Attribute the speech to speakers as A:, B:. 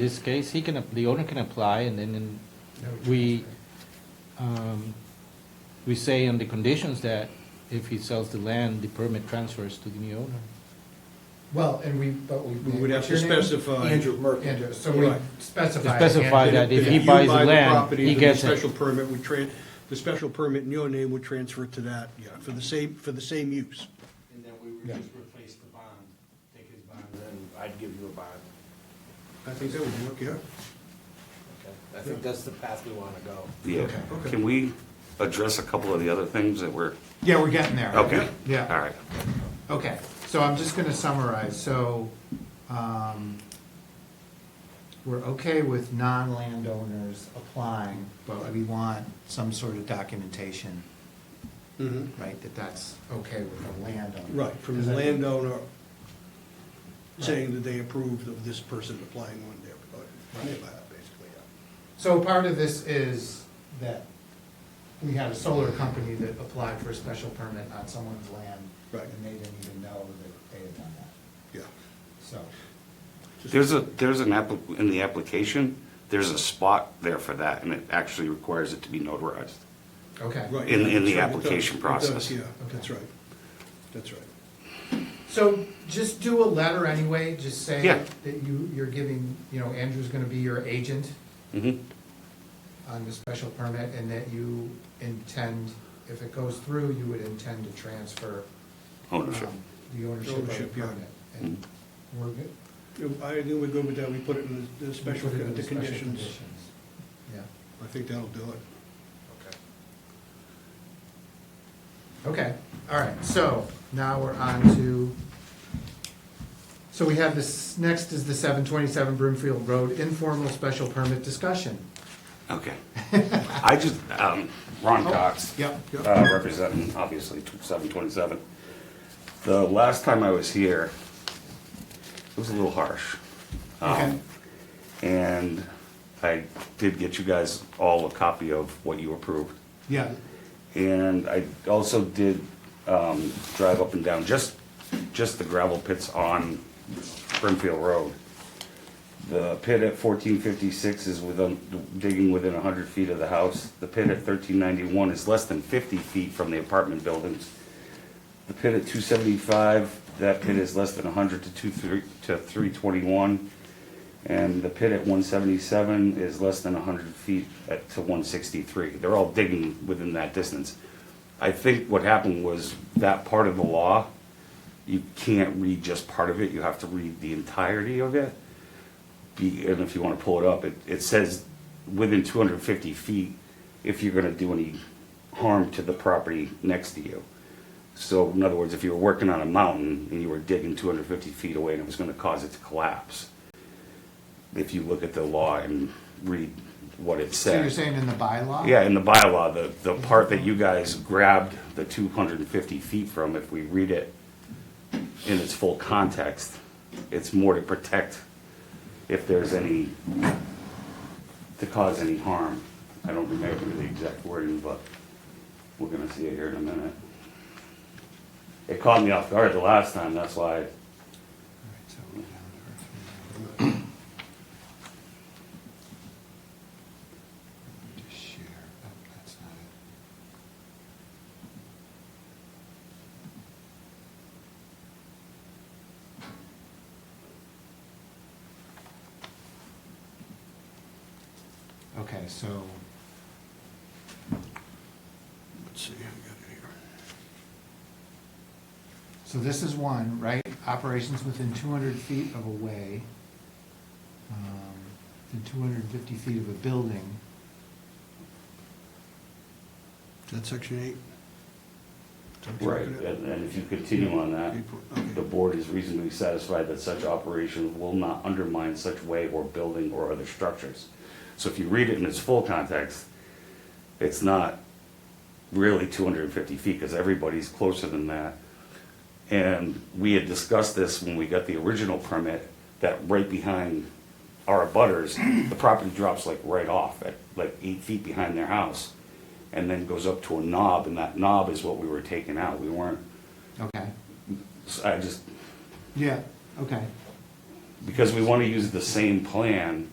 A: this case, he can, the owner can apply, and then we, um, we say on the conditions that if he sells the land, the permit transfers to the new owner.
B: Well, and we, but we.
C: We would have to
B: what's your name?
C: specify-
B: Andrew,
C: Merkel.
B: Andrew, so we
C: Right.
B: specify.
A: Specify
B: Andrew.
A: that if he
C: you
A: buys the
C: buy
A: land,
C: property,
A: he
C: then
A: gets it.
C: The special permit would tran, the special permit in your name would transfer to that, yeah, for the same, for the same use.
D: And then we would
B: Yeah.
D: just replace the bond, take his bond, then I'd give you a bond.
C: I think that would work, yeah.
D: Okay. I think that's the path we wanna go.
E: Yeah,
C: okay.
E: can we address a couple of the other things that were,
B: Yeah, we're getting there.
E: okay, all
B: Yeah,
E: right.
B: okay. So I'm just gonna summarize. So, um, we're okay with non-landowners applying, but we want some sort of documentation,
C: Mhm.
B: right, that that's okay with the landowner.
C: Right, from
B: Does
C: the
B: that-
C: landowner saying that they approved of this person applying on their, on their behalf, basically, yeah.
B: So part of this is that we had a solar company that applied for a special permit on someone's land.
C: Right.
B: And they didn't even know that they had done that,
C: Yeah.
B: so.
C: Just-
E: There's a, there's an app, in the application, there's a spot there for that, and it actually requires it to be notarized.
B: Okay.
C: Right,
E: in- in the
C: that's right, it does,
E: application
C: it does,
E: process.
C: Yeah, that's right, that's right.
B: So just do a letter anyway, just say
E: Yeah.
B: that you, you're giving, you know, Andrew's gonna be your agent
C: Mm-hmm.
E: Mhm.
B: on the special permit and that you intend, if it goes through, you would intend to transfer.
E: Ownership.
B: um, The ownership of the
C: Ownership, yeah.
B: permit. And we're good?
C: I think we're good with that, we put it in the- the special,
B: Put it in
C: the
B: special
C: conditions.
B: Yeah.
C: I think that'll do it.
D: Okay.
B: Okay, all right, so now we're on to, so we have this, next is the seven twenty-seven Broomfield Road informal special permit discussion.
E: Okay. I just, um, Ron
C: Oh,
E: Cox.
B: Yep, yep.
E: uh, representing, obviously, tw- 727. The last time I was here, it was a little harsh. Um,
B: Okay.
E: And I did get you guys all a copy of what you approved.
B: Yeah,
E: And I also did um, drive up and down, just, just the gravel pits on Brimfield Road. The pit at fourteen fifty-six is within, digging within hundred feet of the house. The pit at thirteen ninety-one is less than fifty feet from the apartment buildings. The pit at two seventy-five, that pit is less than hundred to two, three, to three twenty-one. And the pit at one seventy-seven is less than hundred feet at, to one sixty-three. They're all digging within that distance. I think what happened was that part of the law, you can't read just part of it, you have to read the entirety of it. Be, and if you wanna pull it up, it, it says within two hundred and fifty feet, if you're gonna do any harm to the property next to you. So in other words, if you were working on a mountain and you were digging two hundred and fifty feet away and it was gonna cause it to collapse, if you look at the law and read what it says.
B: so you're saying in the bylaw?
E: Yeah, in the bylaw, the, the part that you guys grabbed the two hundred and fifty feet from, if we read it in its full context, it's more to protect if there's any, to cause any harm. I don't remember the exact wording, but we're gonna see it here in a minute. It caught me off guard the last time, that's why,
B: Oh, Okay, so,
C: Let's see, I got it here.
B: so this is one, right? Operations within two hundred feet of a way, um, within two hundred and fifty feet of a building.
C: That's section eight. Section
E: right,
C: eight.
E: and, and if you continue on that, the
C: Okay.
E: board is reasonably satisfied that such operation will not undermine such way or building or other structures. So if you read it in its full context, it's not really two hundred and fifty feet, because everybody's closer than that. And we had discussed this when we got the original permit, that right behind our butters, the property drops like right off at like eight feet behind their house. And then goes up to a knob, and that knob is what we were taking out. We weren't,
B: Okay,
E: I just,
B: yeah, okay.
E: because we want to use the same plan